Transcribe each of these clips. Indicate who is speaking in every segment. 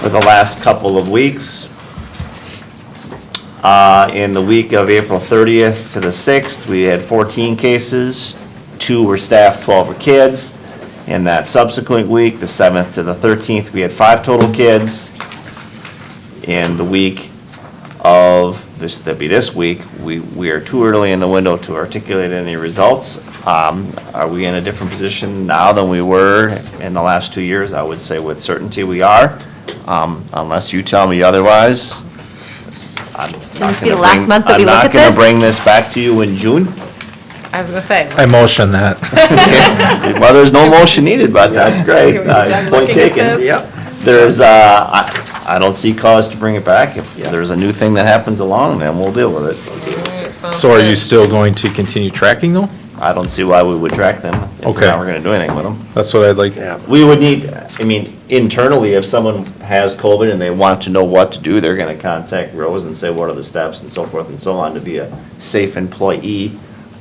Speaker 1: for the last couple of weeks. Uh, In the week of April 30th to the 6th, we had 14 cases, two were staff, 12 were kids. In that subsequent week, the 7th to the 13th, we had five total kids. In the week of, this, that'd be this week, we, we are too early in the window to articulate any results. Um, Are we in a different position now than we were in the last two years? I would say with certainty we are, Um, unless you tell me otherwise. I'm
Speaker 2: Can this
Speaker 1: not
Speaker 2: be the
Speaker 1: gonna
Speaker 2: last
Speaker 1: bring-
Speaker 2: month that we look at
Speaker 1: I'm not
Speaker 2: this?
Speaker 1: gonna bring this back to you in June.
Speaker 2: I was gonna say,
Speaker 3: I motion that.
Speaker 1: Well, there's no motion needed, but that's great.
Speaker 2: Can we be done
Speaker 1: Uh, Point
Speaker 2: looking at
Speaker 1: taken.
Speaker 2: this?
Speaker 1: Yep. There's, uh, I, I don't see cause to bring it back. If there's a new thing that happens along, then we'll deal with it.
Speaker 3: So are you still going to continue tracking though?
Speaker 1: I don't see why we would track them if we're
Speaker 3: Okay.
Speaker 1: not gonna do anything with them.
Speaker 3: That's what I'd like.
Speaker 1: We would need, I mean, internally, if someone has COVID and they want to know what to do, they're gonna contact Rose and say, what are the steps and so forth and so on to be a safe employee.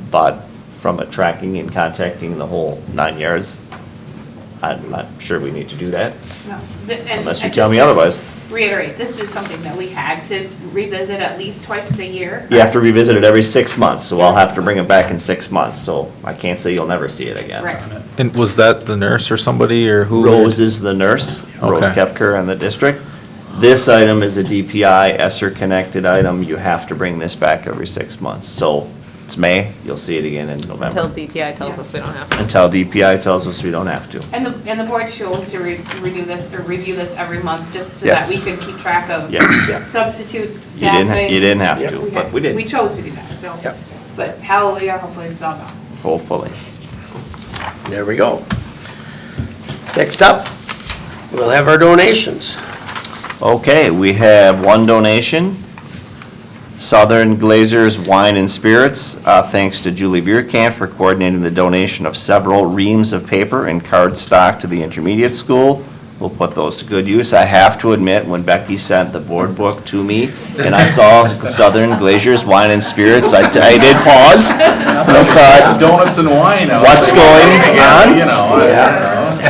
Speaker 1: But from a tracking and contacting the whole nine yards, I'm not sure we need to do that.
Speaker 4: No, th- and
Speaker 1: Unless you
Speaker 4: I
Speaker 1: tell
Speaker 4: just
Speaker 1: me otherwise.
Speaker 4: Reiterate, this is something that we had to revisit at least twice a year.
Speaker 1: You have to revisit it every six months, so I'll have to bring it back in six months, so I can't say you'll never see it again.
Speaker 4: Right.
Speaker 3: And was that the nurse or somebody or who?
Speaker 1: Rose is the nurse, Rose
Speaker 3: Okay.
Speaker 1: Kepker in the district. This item is a DPI ESER-connected item, you have to bring this back every six months. So it's May, you'll see it again in
Speaker 2: until
Speaker 1: November,
Speaker 2: DPI tells us we don't have to.
Speaker 1: until DPI tells us we don't have to.
Speaker 4: And the, and the board chose to re- renew this or review this every month, just so
Speaker 1: Yes.
Speaker 4: that we could keep track of
Speaker 1: Yes.
Speaker 4: substitutes,
Speaker 1: You didn't, ha-
Speaker 4: staffing.
Speaker 1: you didn't have to, but we
Speaker 4: had-
Speaker 1: did.
Speaker 4: We chose to do that, so. But hallelujah, hopefully it's all gone.
Speaker 1: Hopefully.
Speaker 5: There we go. Next up, we'll have our donations.
Speaker 1: Okay, we have one donation. Southern Glazers Wine and Spirits, uh, thanks to Julie Bierkamp for coordinating the donation of several reams of paper and cardstock to the intermediate school. We'll put those to good use. I have to admit, when Becky sent the board book to me and I saw Southern Glazers Wine and Spirits, I I did pause. I thought,
Speaker 6: donuts and wine. I was
Speaker 1: What's going
Speaker 6: thinking,
Speaker 1: on?
Speaker 6: You know, I-
Speaker 5: Yeah.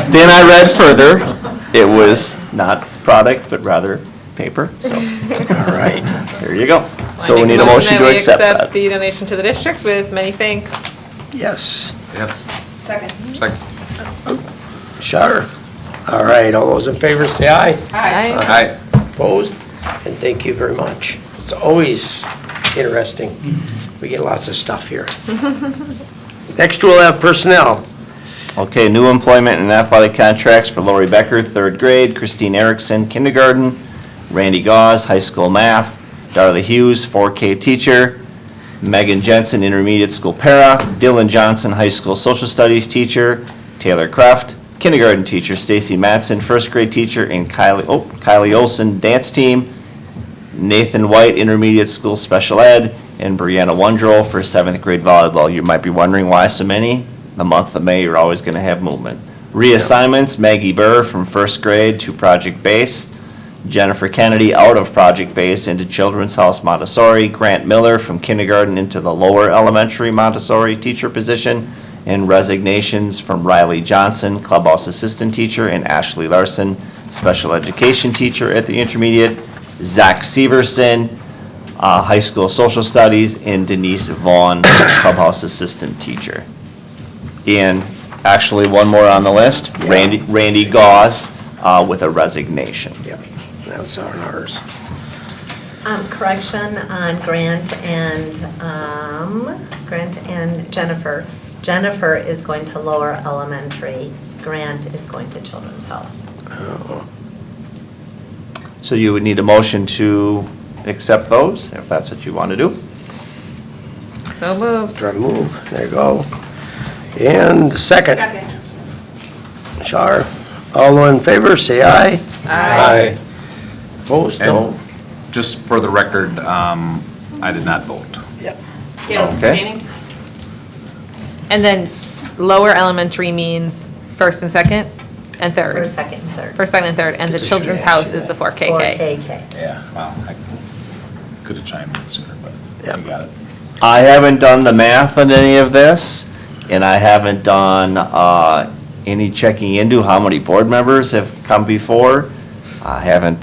Speaker 1: Then I read further. It was not product, but rather paper, so.
Speaker 5: All right.
Speaker 1: There you go. So we
Speaker 2: I make
Speaker 1: need a motion
Speaker 2: that
Speaker 1: to
Speaker 2: we
Speaker 1: accept that.
Speaker 2: The donation to the district with many thanks.
Speaker 5: Yes,
Speaker 4: Second.
Speaker 5: sure. All right, all those in favor say aye.
Speaker 4: Aye.
Speaker 2: Aye.
Speaker 5: Opposed? And thank you very much. It's always interesting. We get lots of stuff here. Next, we'll have personnel.
Speaker 1: Okay, new employment and athletic contracts for Lori Becker, third grade, Christine Erickson, kindergarten, Randy Gauze, high school math, Darla Hughes, 4K teacher, Megan Jensen, intermediate school para, Dylan Johnson, high school social studies teacher, Taylor Kraft, kindergarten teacher, Stacy Matson, first grade teacher, and Kylie, oh, Kylie Olson, dance team, Nathan White, intermediate school special ed, and Brianna Wondrell for seventh grade volleyball. You might be wondering why so many. The month of May, you're always going to have movement. Reassignments, Maggie Burr from first grade to project base, Jennifer Kennedy out of project base into Children's House Montessori, Grant Miller from kindergarten into the lower elementary Montessori teacher position, and resignations from Riley Johnson, clubhouse assistant teacher, and Ashley Larson, special education teacher at the intermediate, Zach Severson, uh, high school social studies, and Denise Vaughn, clubhouse assistant teacher. And actually, one more on the list,
Speaker 5: Yeah.
Speaker 1: Randy, Randy Gauss, uh, with a resignation.
Speaker 5: Yep, that's on ours.
Speaker 7: Um, correction on Grant and, um, Grant and Jennifer. Jennifer is going to lower elementary, Grant is going to Children's House.
Speaker 1: So you would need a motion to accept those, if that's what you want to do.
Speaker 2: So moved.
Speaker 5: Drug move, there you go. And second,
Speaker 4: Second.
Speaker 5: Shar, all in favor, say aye.
Speaker 2: Aye.
Speaker 5: Opposed, no.
Speaker 6: And just for the record, um, I did not vote.
Speaker 5: Yep.
Speaker 4: Gail,
Speaker 1: Okay.
Speaker 4: abstaining?
Speaker 2: And then lower elementary means first and second and third.
Speaker 7: First, second, and third.
Speaker 2: First, second, and third, and the
Speaker 5: This is
Speaker 2: children's
Speaker 5: trash,
Speaker 2: house
Speaker 5: yeah.
Speaker 2: is the four
Speaker 7: Or
Speaker 2: KK.
Speaker 7: KK.
Speaker 6: Yeah. Wow, I could have chimed in sooner, but you
Speaker 5: Yep.
Speaker 6: got it.
Speaker 1: I haven't done the math on any of this, and I haven't done uh, any checking into how many board members have come before. I haven't